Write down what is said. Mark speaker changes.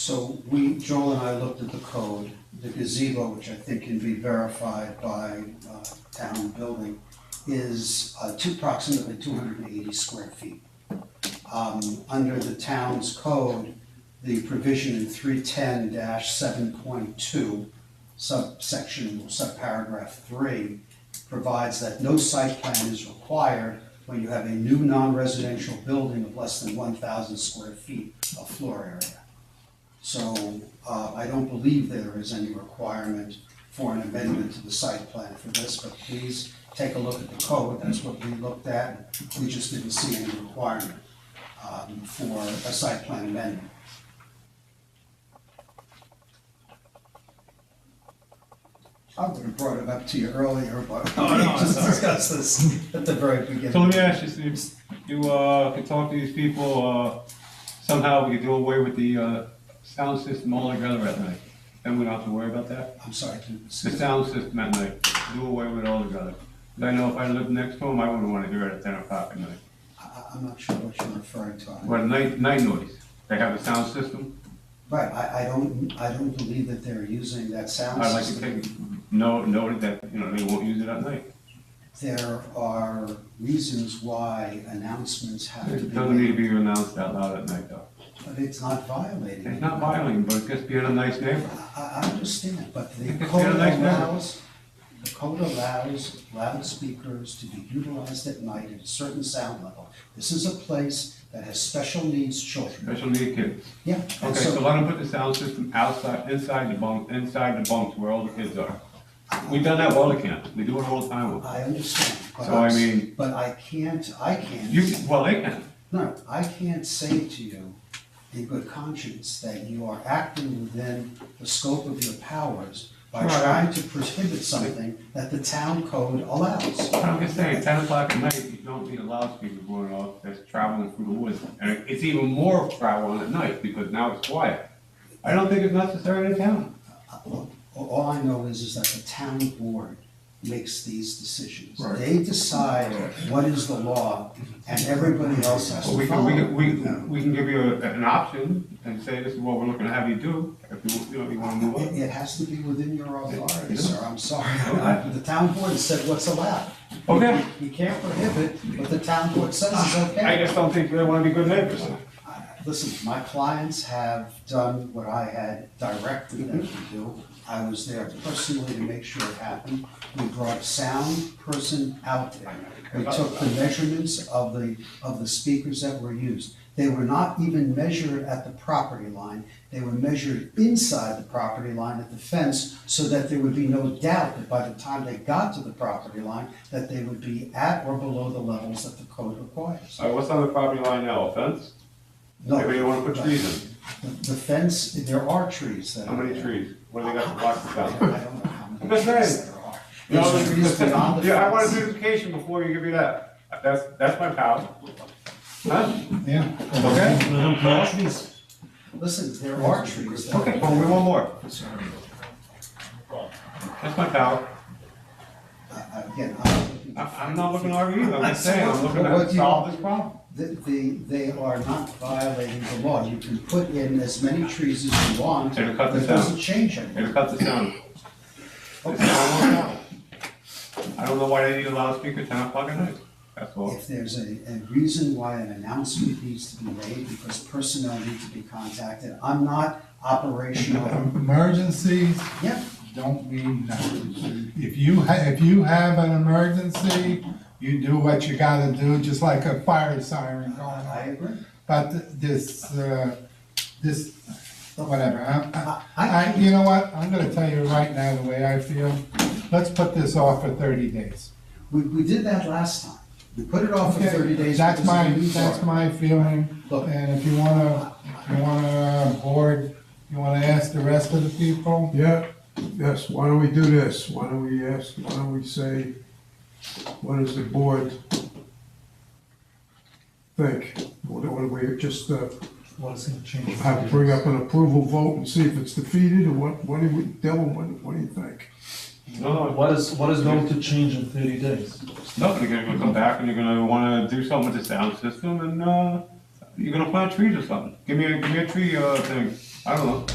Speaker 1: So we, Joel and I looked at the code, the gazebo, which I think can be verified by uh, town building, is uh, two- approximately two hundred and eighty square feet. Um, Under the town's code, the provision in three ten seven point two subsection, subparagraph three, provides that no site plan is required when you have a new non-residential building of less than one thousand square feet of floor area. So uh, I don't believe there is any requirement for an amendment to the site plan for this, but please take a look at the code, that's what we looked at. We just didn't see any requirement um, for a site plan amendment. I would have brought it up to you earlier, but
Speaker 2: Oh,
Speaker 1: we
Speaker 2: no, it's all
Speaker 1: just
Speaker 2: right.
Speaker 1: discussed this at the very beginning.
Speaker 2: So let me ask you, Steve, you, uh, could talk to these people, uh, somehow we could do away with the, uh, sound system altogether at night? Then we don't have to worry about that?
Speaker 1: I'm sorry, can-
Speaker 2: The sound system at night, do away with it altogether. 'Cause I know if I lived next to them, I wouldn't wanna hear it at ten o'clock at night.
Speaker 1: I- I- I'm not sure what you're referring to. I'm-
Speaker 2: What, night, night noise? They have a sound system?
Speaker 1: Right, I, I don't, I don't believe that they're using that sound
Speaker 2: I'd like to
Speaker 1: system.
Speaker 2: take, no, note that, you know, they won't use it at night.
Speaker 1: There are reasons why announcements have to
Speaker 2: It
Speaker 1: be
Speaker 2: doesn't need to
Speaker 1: made,
Speaker 2: be announced out loud at night though.
Speaker 1: but it's not violating.
Speaker 2: It's not violating, but it's just being a nice neighbor.
Speaker 1: I, I understand, but the
Speaker 2: It's been a
Speaker 1: code
Speaker 2: nice memory.
Speaker 1: allows, the code allows loudspeakers to be utilized at night at a certain sound level. This is a place that has special needs children.
Speaker 2: Special need kids.
Speaker 1: Yeah, and
Speaker 2: Okay, so
Speaker 1: so
Speaker 2: let them put the sound system outside, inside the bunk, inside the bunks where all the kids are. We've done that all the camp, we do it all the time. with-
Speaker 1: I understand, but
Speaker 2: So I
Speaker 1: I'm s-
Speaker 2: mean-
Speaker 1: But I can't, I can't.
Speaker 2: You, well, they can,
Speaker 1: No, I can't say to you in good conscience that you are acting within the scope of your powers by
Speaker 2: Right.
Speaker 1: trying to prohibit something that the town code allows.
Speaker 2: but I'm just saying, ten o'clock at night, you don't need a loudspeaker going off that's traveling through the woods. And it's even more traveling at night because now it's quiet. I don't think it's necessary in town.
Speaker 1: All- All I know is, is that the town board makes these decisions.
Speaker 2: Right.
Speaker 1: They decide what is the law, and everybody else has
Speaker 2: But we
Speaker 1: to
Speaker 2: can,
Speaker 1: follow.
Speaker 2: we can, we, we can give you a- an option and say, this is what we're looking to have you do, if you, you know, you wanna move
Speaker 1: It,
Speaker 2: on.
Speaker 1: it has to be within your authority,
Speaker 2: Yeah.
Speaker 1: sir, I'm sorry.
Speaker 2: Okay.
Speaker 1: The town board has said what's allowed.
Speaker 2: Okay.
Speaker 1: You can't prohibit, but the town board says it's okay.
Speaker 2: I just don't think they wanna be good neighbors.
Speaker 1: Listen, my clients have done what I had directed them to do. I was there personally to make sure it happened. We brought a sound person out there. We took the measurements of the, of the speakers that were used. They were not even measured at the property line. They were measured inside the property line at the fence so that there would be no doubt that by the time they got to the property line, that they would be at or below the levels that the code requires.
Speaker 2: All right, what's on the property line now, a fence?
Speaker 1: No.
Speaker 2: Maybe you wanna put trees in?
Speaker 1: The the fence, there are trees that
Speaker 2: How
Speaker 1: are
Speaker 2: many
Speaker 1: there.
Speaker 2: trees? What do they got to block the
Speaker 1: I
Speaker 2: town?
Speaker 1: don't know how many
Speaker 2: I'm just
Speaker 1: trees
Speaker 2: saying.
Speaker 1: there are.
Speaker 2: No,
Speaker 1: There's trees beyond the fence.
Speaker 2: Yeah, I want a certification before you give me that. That's, that's my power. Huh?
Speaker 1: Yeah.
Speaker 2: Okay?
Speaker 1: Listen, there are trees that
Speaker 2: Okay, well, we want more. That's my power.
Speaker 1: I- I- Again, I'm not looking.
Speaker 2: I, I'm not looking to argue either. I'm just saying, I'm looking
Speaker 1: What
Speaker 2: to
Speaker 1: do you-
Speaker 2: solve this problem.
Speaker 1: The, the, they are not violating the law. You can put in as many trees as you want.
Speaker 2: It'll cut
Speaker 1: It
Speaker 2: this down.
Speaker 1: doesn't change anything.
Speaker 2: It'll cut the sound. It's not a long problem. I don't know why they need a loudspeaker ten o'clock at night. That's all.
Speaker 1: If there's a, a reason why an announcement needs to be made, because personnel need to be contacted, I'm not operational.
Speaker 3: Emergencies
Speaker 1: Yeah,
Speaker 3: don't mean nothing. If you, ha- if you have an emergency, you do what you gotta do, just like a fire siren going
Speaker 1: I
Speaker 3: on.
Speaker 1: agree.
Speaker 3: But th- this, uh, this, whatever, I- I,
Speaker 1: I-
Speaker 3: I, you know what, I'm gonna tell you right now the way I feel. Let's put this off for thirty days.
Speaker 1: We, we did that last time. We put it off for thirty days.
Speaker 3: That's
Speaker 1: because of
Speaker 3: my,
Speaker 1: the new
Speaker 3: that's
Speaker 1: charter.
Speaker 3: my feeling,
Speaker 1: Look.
Speaker 3: and if you wanna, if you wanna, uh, board, you wanna ask the rest of the people,
Speaker 4: Yeah, yes, why don't we do this? Why don't we ask, why don't we say, what does the board think? What do we just, uh,
Speaker 3: Well, it's gonna change.
Speaker 4: have to bring up an approval vote and see if it's defeated, or what, what do we, Dylan, what, what do you think?
Speaker 2: No, no,
Speaker 5: What is, what is going to change in thirty days?
Speaker 2: Nothing, you're gonna come back and you're gonna wanna do something with the sound system and, uh, you're gonna plant trees or something. Give me a, give me a tree, uh, thing. I don't know.